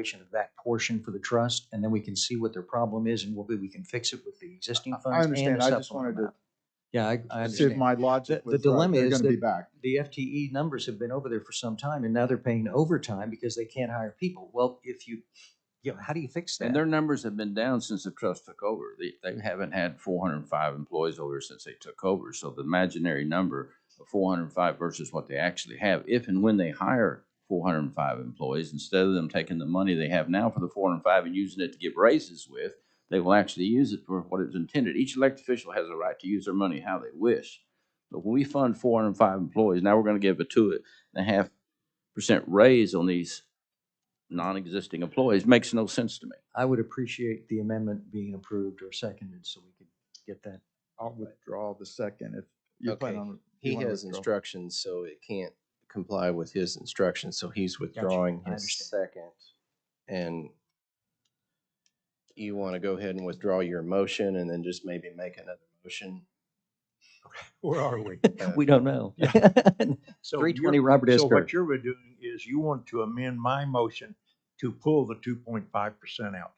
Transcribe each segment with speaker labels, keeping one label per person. Speaker 1: evaluation of that portion for the trust, and then we can see what their problem is, and maybe we can fix it with the existing funds. and
Speaker 2: understand.
Speaker 1: the
Speaker 2: I just
Speaker 1: supplemental
Speaker 2: wanted to
Speaker 1: amount. Yeah, I, I
Speaker 2: See if
Speaker 1: understand.
Speaker 2: my logic
Speaker 1: The- the
Speaker 2: was right.
Speaker 1: dilemma
Speaker 2: They're
Speaker 1: is
Speaker 2: gonna be
Speaker 1: that-
Speaker 2: back.
Speaker 1: The FTE numbers have been over there for some time, and now they're paying overtime because they can't hire people. Well, if you, you know, how do you fix that?
Speaker 3: And their numbers have been down since the trust took over. They, they haven't had four hundred and five employees over since they took over. So the imaginary number of four hundred and five versus what they actually have, if and when they hire four hundred and five employees, instead of them taking the money they have now for the four hundred and five and using it to give raises with, they will actually use it for what it's intended. Each elected official has a right to use their money how they wish. But when we fund four hundred and five employees, now we're gonna give a two and a half percent raise on these non-existing employees. Makes no sense to me.
Speaker 1: I would appreciate the amendment being approved or seconded so we could get that.
Speaker 2: I'll withdraw the second if you plan
Speaker 4: Okay.
Speaker 2: on. you
Speaker 4: He
Speaker 2: wanna
Speaker 4: has
Speaker 2: withdraw.
Speaker 4: instructions, so it can't comply with his instructions, so he's withdrawing
Speaker 1: I
Speaker 4: his
Speaker 1: understand.
Speaker 4: second. And you want to go ahead and withdraw your motion and then just maybe make another motion?
Speaker 5: Where are we?
Speaker 1: We don't know.
Speaker 5: So
Speaker 1: Three
Speaker 5: you're-
Speaker 1: twenty Robert S.
Speaker 5: So
Speaker 1: Kirk.
Speaker 5: what you're doing is you want to amend my motion to pull the two point five percent out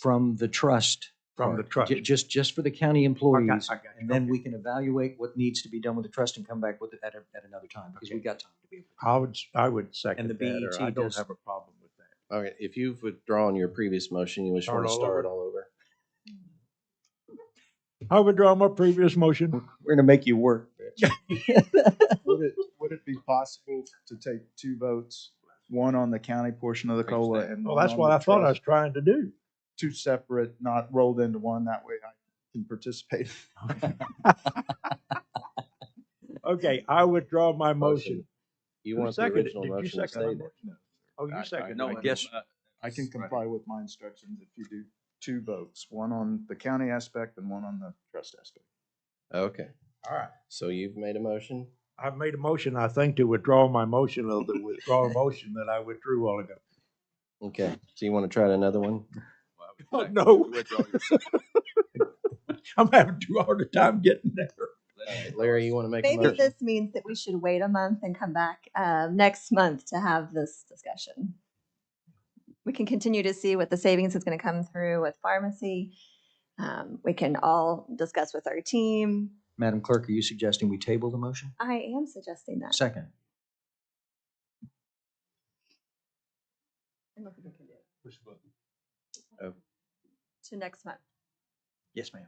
Speaker 1: From the trust.
Speaker 5: from the
Speaker 1: part,
Speaker 5: trust.
Speaker 1: ju- Just, just for the county employees.
Speaker 5: I got you,
Speaker 1: And then
Speaker 5: okay.
Speaker 1: we can evaluate what needs to be done with the trust and come back with it at, a- at another time because we've got time to be. able to-
Speaker 5: I would, s- I would second
Speaker 1: the
Speaker 5: that, or I
Speaker 1: BET
Speaker 5: don't
Speaker 1: does-
Speaker 5: have a problem with that.
Speaker 4: All right, if you've withdrawn your previous motion, you just want to
Speaker 5: Start all
Speaker 4: start
Speaker 5: over?
Speaker 4: all over.
Speaker 5: I withdraw my previous motion.
Speaker 1: We're gonna make you work.
Speaker 2: Would it, would it be possible to take two votes, one on the county portion of the COLA and
Speaker 5: Well,
Speaker 2: one
Speaker 5: that's
Speaker 2: on
Speaker 5: what
Speaker 2: the
Speaker 5: I thought I
Speaker 2: trust?
Speaker 5: was trying to do.
Speaker 2: Two separate, not rolled into one. That way I can participate.
Speaker 5: Okay, I withdraw my motion.
Speaker 4: You
Speaker 5: Who
Speaker 4: want the
Speaker 5: seconded it?
Speaker 4: original
Speaker 5: Did you
Speaker 4: motion to
Speaker 5: second my
Speaker 4: stay
Speaker 5: motion?
Speaker 4: there.
Speaker 5: Oh, you seconded.
Speaker 3: No,
Speaker 5: it.
Speaker 3: I guess.
Speaker 2: I can comply with my instructions if you do two votes, one on the county aspect and one on the trust aspect.
Speaker 4: Okay,
Speaker 5: All right.
Speaker 4: so you've made a motion?
Speaker 5: I've made a motion, I think, to withdraw my motion of the withdrawal motion that I withdrew while ago.
Speaker 4: Okay, so you want to try another one?
Speaker 5: Oh, no. I'm having too hard a time getting there.
Speaker 4: Larry, you want to make a
Speaker 6: Maybe
Speaker 4: motion?
Speaker 6: this means that we should wait a month and come back um, next month to have this discussion. We can continue to see what the savings is going to come through with pharmacy. Um, We can all discuss with our team.
Speaker 1: Madam Clerk, are you suggesting we table the motion?
Speaker 6: I am suggesting that.
Speaker 1: Second.
Speaker 4: Oh.
Speaker 6: To next month.
Speaker 1: Yes, ma'am.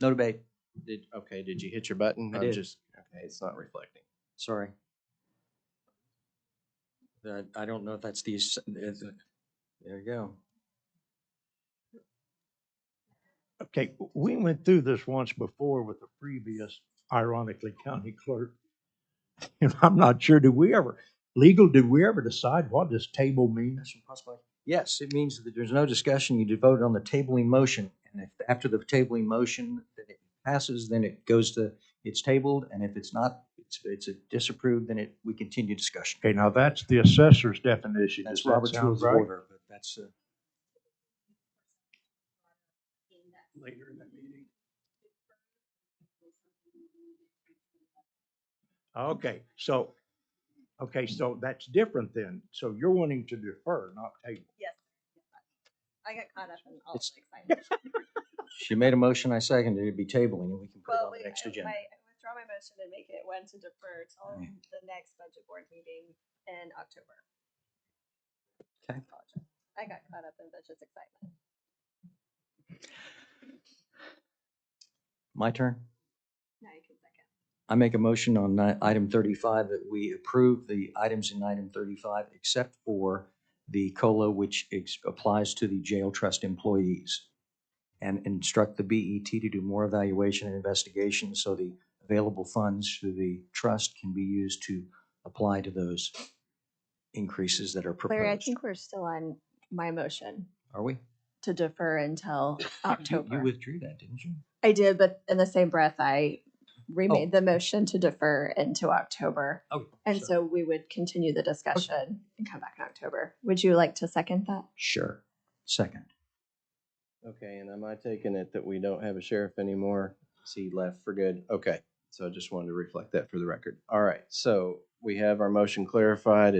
Speaker 1: No debate.
Speaker 4: Did, okay, did you hit your button?
Speaker 1: I
Speaker 4: I'm
Speaker 1: did.
Speaker 4: just, okay, it's not reflecting.
Speaker 1: Sorry. That, I don't know if that's the, s- is it- there you go.
Speaker 5: Okay, we went through this once before with the previous, ironically, county clerk. And I'm not sure, did we ever, legal, did we ever decide what this table means?
Speaker 1: Discussion possibly? Yes, it means that there's no discussion. You did vote on the tabling motion. And if, after the tabling motion, that it passes, then it goes to, it's tabled. And if it's not, it's, it's disapproved, then it, we continue discussion.
Speaker 5: Okay, now that's the assessor's definition.
Speaker 1: That's
Speaker 5: Does that
Speaker 1: Robert's
Speaker 5: sound
Speaker 1: rules of
Speaker 5: right?
Speaker 1: order, but that's, uh,
Speaker 5: Later in that meeting. Okay, so, okay, so that's different then. So you're wanting to defer, not table.
Speaker 6: Yes. I got caught up in all
Speaker 1: It's-
Speaker 6: the excitement.
Speaker 1: she made a motion, I seconded it, it'd be tabling and we can put it
Speaker 6: Well,
Speaker 1: on
Speaker 6: wait,
Speaker 1: the next
Speaker 6: I-
Speaker 1: agenda.
Speaker 6: I I withdraw my motion and make it one to defer till
Speaker 1: Right.
Speaker 6: the next budget board meeting in October.
Speaker 1: Okay.
Speaker 6: Apologize. I got caught up in budget excitement.
Speaker 1: My turn?
Speaker 6: Now you can second.
Speaker 1: I make a motion on ni- item thirty-five that we approve the items in item thirty-five except for the COLA, which ex- applies to the jail trust employees. And instruct the BET to do more evaluation and investigation so the available funds through the trust can be used to apply to those increases that are
Speaker 6: Larry, I
Speaker 1: proposed.
Speaker 6: think we're still on my motion
Speaker 1: Are we?
Speaker 6: to defer until
Speaker 1: You- you- You
Speaker 6: October.
Speaker 1: withdrew that, didn't you?
Speaker 6: I did, but in the same breath, I remade the motion to defer into October.
Speaker 1: Oh,
Speaker 6: And so we would continue the discussion and come back in October. Would you like to second that?
Speaker 1: Sure. Second.
Speaker 4: Okay, and am I taking it that we don't have a sheriff anymore? So he left for good? Okay, so I just wanted to reflect that for the record. All right, so we have our motion clarified.